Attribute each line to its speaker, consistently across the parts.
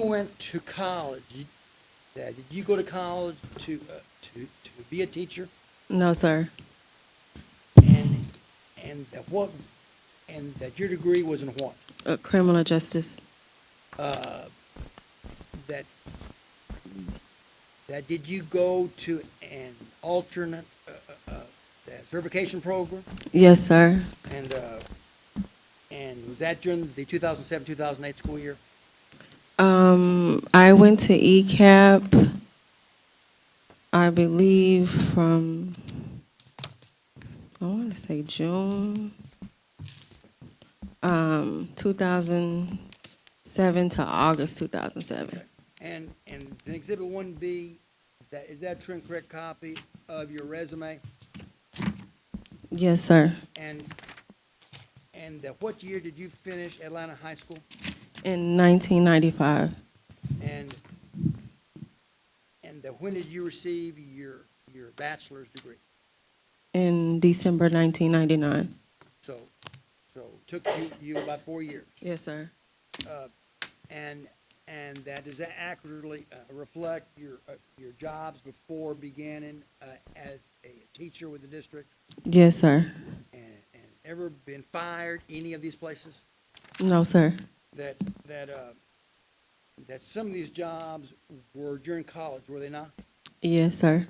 Speaker 1: went to college, you- Dad, did you go to college to, uh, to, to be a teacher?
Speaker 2: No, sir.
Speaker 1: And, and that what, and that your degree was in what?
Speaker 2: Uh, criminal justice.
Speaker 1: Uh, That, that did you go to an alternate, uh, uh, uh, that certification program?
Speaker 2: Yes, sir.
Speaker 1: And, uh, and was that during the two thousand seven, two thousand eight school year?
Speaker 2: Um, I went to E ECAP, I believe, from, I want to say June, um, 2007 to August 2007.
Speaker 1: And, and in exhibit one B, that, is that a true and correct copy of your resume?
Speaker 2: Yes, sir.
Speaker 1: And, and that what year did you finish Atlanta High School?
Speaker 2: In 1995.
Speaker 1: And, and that when did you receive your, your bachelor's degree?
Speaker 2: In December 1999.
Speaker 1: So, so took you, you about four years.
Speaker 2: Yes, sir.
Speaker 1: And, and that does that accurately uh, reflect your, uh, your jobs before beginning uh, as a teacher with the district?
Speaker 2: Yes, sir.
Speaker 1: And, and ever been fired any of these places?
Speaker 2: No, sir.
Speaker 1: That, that, uh, that some of these jobs were during college, were they not?
Speaker 2: Yes, sir.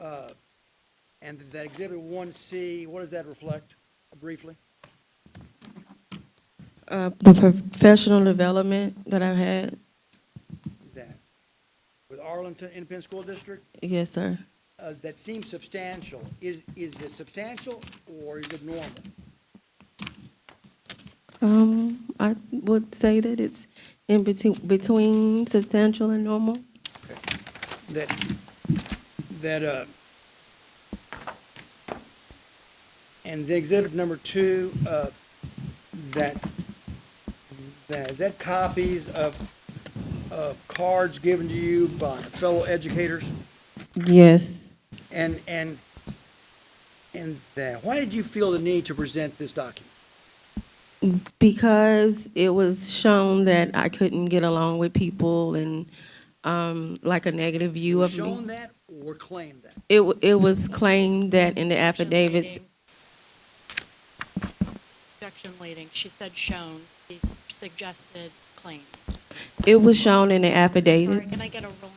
Speaker 1: Uh, And that exhibit one C, what does that reflect briefly?
Speaker 2: Uh, the professional development that I've had.
Speaker 1: That with Arlington Independent School District,
Speaker 2: Yes, sir.
Speaker 1: uh, that seems substantial. Is, is it substantial or is it normal?
Speaker 2: Um, I would say that it's in between, between substantial and normal.
Speaker 1: That, that, uh, and the exhibit number two, uh, that, that, that copies of, of cards given to you by fellow educators?
Speaker 2: Yes.
Speaker 1: And, and, and that, why did you feel the need to present this document?
Speaker 2: Because it was shown that I couldn't get along with people and, um, like a negative view of
Speaker 1: Shown
Speaker 2: me.
Speaker 1: that or claimed that?
Speaker 2: It, wa- it was claimed that in the affidavits,
Speaker 3: Objection leading, she said shown, she suggested claim.
Speaker 2: it was shown in the
Speaker 3: Sorry,
Speaker 2: affidavits.
Speaker 3: can I get a roll?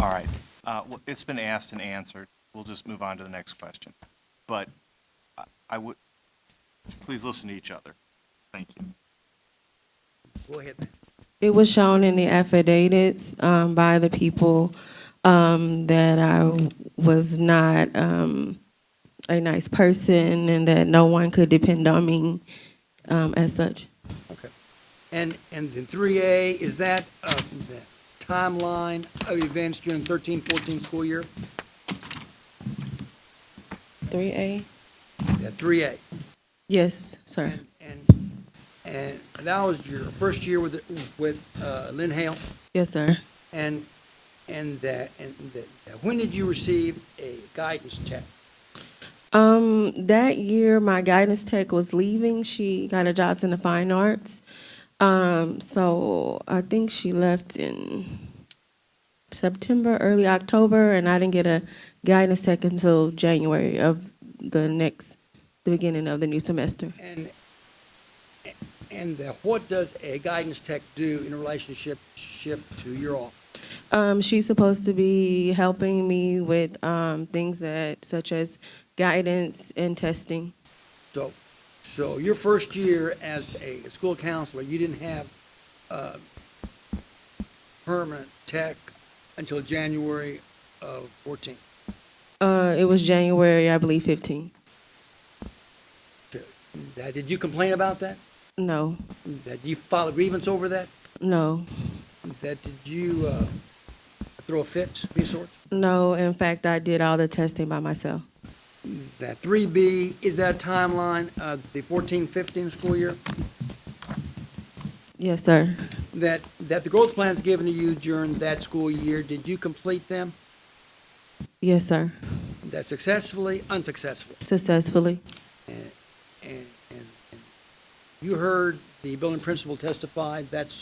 Speaker 4: All right. Uh, well, It's been asked and answered. We'll just move on to the next question. But I- I would, please listen to each other. Thank you.
Speaker 1: Go ahead, ma'am.
Speaker 2: It was shown in the affidavits um, by the people um, that I was not um, a nice person and that no one could depend on me um, as such.
Speaker 1: Okay. And, and then three A, is that, uh, the timeline of events during thirteen, fourteen school year?
Speaker 2: 3A?
Speaker 1: Yeah, three A.
Speaker 2: Yes, sir.
Speaker 1: And, and, and that was your first year with, with, uh, Lynn Hale?
Speaker 2: Yes, sir.
Speaker 1: And, and that, and that, when did you receive a guidance check?
Speaker 2: Um, that year, my guidance tech was leaving. She got a job in the fine arts. Um, so I think she left in September, early October, and I didn't get a guidance tech until January of the next, the beginning of the new semester.
Speaker 1: And, and that what does a guidance tech do in relationship, ship to your office?
Speaker 2: Um, she's supposed to be helping me with um, things that, such as guidance and testing.
Speaker 1: So, so your first year as a school counselor, you didn't have, uh, permanent tech until January of fourteen.
Speaker 2: Uh, it was January, I believe, 15.
Speaker 1: That, did you complain about that?
Speaker 2: No,
Speaker 1: That you file a grievance over that?
Speaker 2: no.
Speaker 1: That did you, uh, throw a fit, any sort?
Speaker 2: No, in fact, I did all the testing by myself.
Speaker 1: That three B, is that a timeline of the fourteen, fifteen school year?
Speaker 2: Yes, sir.
Speaker 1: that, that the growth plans given to you during that school year, did you complete them?
Speaker 2: Yes, sir.
Speaker 1: That successfully, unsuccessfully?
Speaker 2: Successfully.
Speaker 1: And, and, and and you heard the building principal testify that's so.